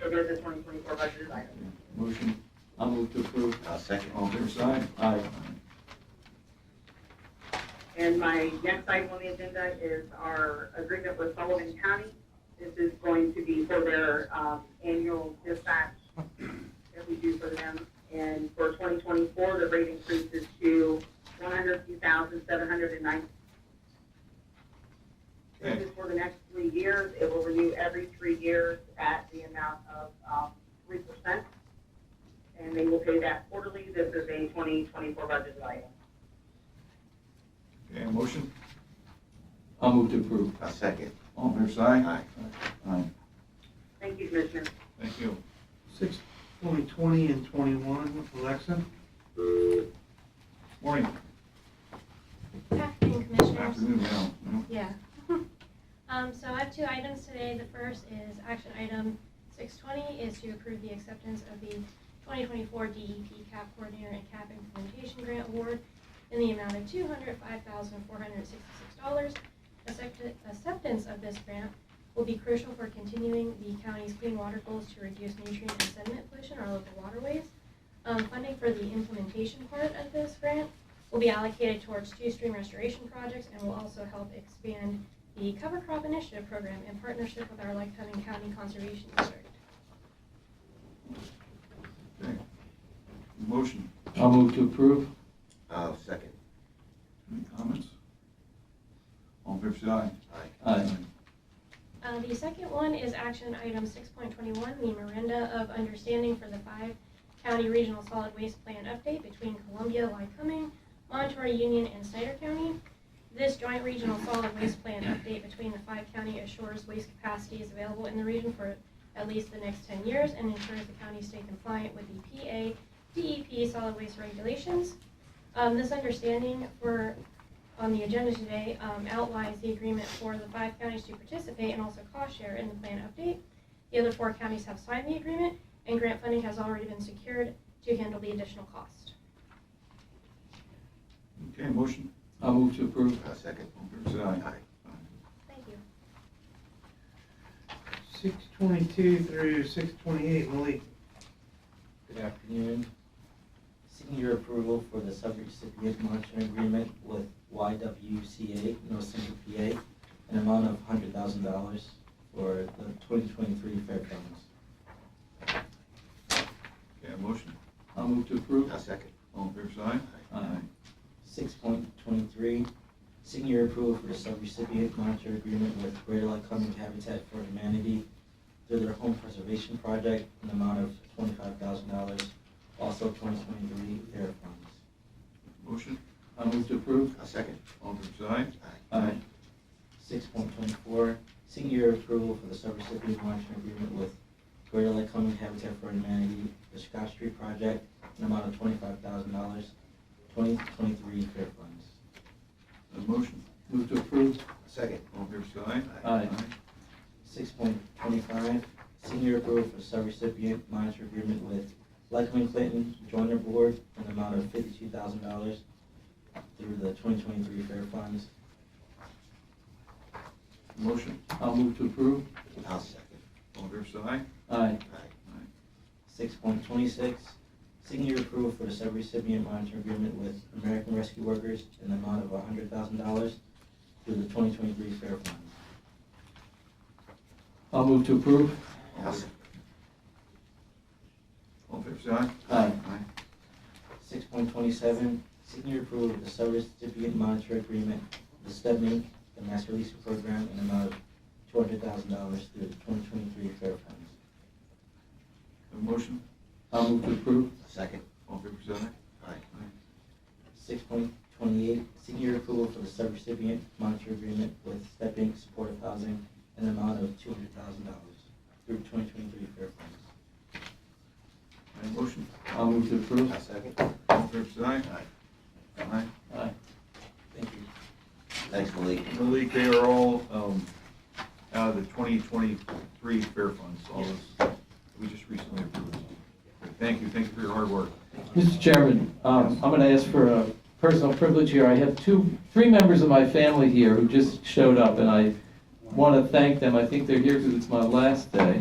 twenty twenty-four budget as item. Motion, I'll move to approve. I'll second. All fair side? Aye. And my next item on the agenda is our agreement with Sullivan County. This is going to be for their um, annual dispatch that we do for them. And for 2024, the rate increases to 102,790. This is for the next three years. It will renew every three years at the amount of um, 3%. And they will pay that quarterly. This is a 2024 budget item. Okay, a motion? I'll move to approve. I'll second. All fair side? Aye. Aye. Thank you, Commissioner. Thank you. Six point twenty and twenty-one, Alexa. Morning, Afternoon, Commissioners. afternoon now. Mhm. Yeah. Um, so I have two items today. The first is action item six twenty is to approve the acceptance of the twenty twenty-four DEP CAP Coordinator and CAP Implementation Grant Award in the amount of two hundred five thousand four hundred sixty-six dollars. Acceptance of this grant will be crucial for continuing the county's clean water goals to reduce nutrient and sediment pollution in our local waterways. Um, funding for the implementation part of this grant will be allocated towards two stream restoration projects and will also help expand the cover crop initiative program in partnership with our Lycoming County Conservation District. Okay. Motion, I'll move to approve. I'll second. any comments? All fair side? Aye. Aye. Uh, the second one is action item six point twenty-one, the Miranda of Understanding for the five county regional solid waste plan update between Columbia, Lycoming, Monterey Union, and Snyder County. This joint regional solid waste plan update between the five county assures waste capacity is available in the region for at least the next ten years and ensures the county stay compliant with the PA DEP E solid waste regulations. Um, this understanding for on the agenda today um, outlines the agreement for the five counties to participate and also cost share in the plan update. The other four counties have signed the agreement, and grant funding has already been secured to handle the additional cost. Okay, motion, I'll move to approve. I'll second. all fair side? Aye. Thank you. Six twenty-two through six twenty-eight, Malik. Good afternoon. Seeking your approval for the subrecipient monitoring agreement with YWCA, North Central PA, an amount of hundred thousand dollars for the twenty twenty-three fairgrounds. Okay, motion, I'll move to approve. I'll second. all fair side? Aye. Six point twenty-three, seeking your approval for the subrecipient monitor agreement with Greater Lycoming Habitat for Humanity through their home preservation project, an amount of twenty-five thousand dollars, also twenty twenty-three fair funds. Motion, I'll move to approve. I'll second. all fair side? Aye. Aye. Six point twenty-four, seeking your approval for the subrecipient monitoring agreement with Greater Lycoming Habitat for Humanity, the Scott Street Project, an amount of twenty-five thousand dollars, twenty twenty-three fair funds. A motion, Move to approve. I'll second. all fair side? Aye. Six point twenty-five, seeking your approval for subrecipient monitor agreement with Lycoming Clinton Joiner Board, an amount of fifty-two thousand dollars through the twenty twenty-three fair funds. Motion, I'll move to approve. I'll second. all fair side? Uh, Aye. Aye. Six point twenty-six, seeking your approval for the subrecipient monitor agreement with American Rescue Workers in the amount of hundred thousand dollars through the twenty twenty-three fair fund. I'll move to approve. I'll second. All fair side? Aye. Six point twenty-seven, seeking your approval of the subrecipient monitor agreement with STEM Inc., the master leasing program in the amount of two hundred thousand dollars through the twenty twenty-three fair funds. A motion, I'll move to approve. I'll second. all fair side? Aye. Six point twenty-eight, seeking your approval for the subrecipient monitor agreement with STEP Inc. Supportive Housing in the amount of two hundred thousand dollars through twenty twenty-three fair funds. A motion, I'll move to approve. I'll second. all fair side? Aye. Aye. Aye. Thank you. Thanks, Malik. Malik, they are all um, out of the 2023 fair funds, all those, we just recently approved. Thank you, thank you for your hard work. Mr. Chairman, um, I'm going to ask for a personal privilege here. I have two, three members of my family here who just showed up, and I want to thank them. I think they're here because it's my last day.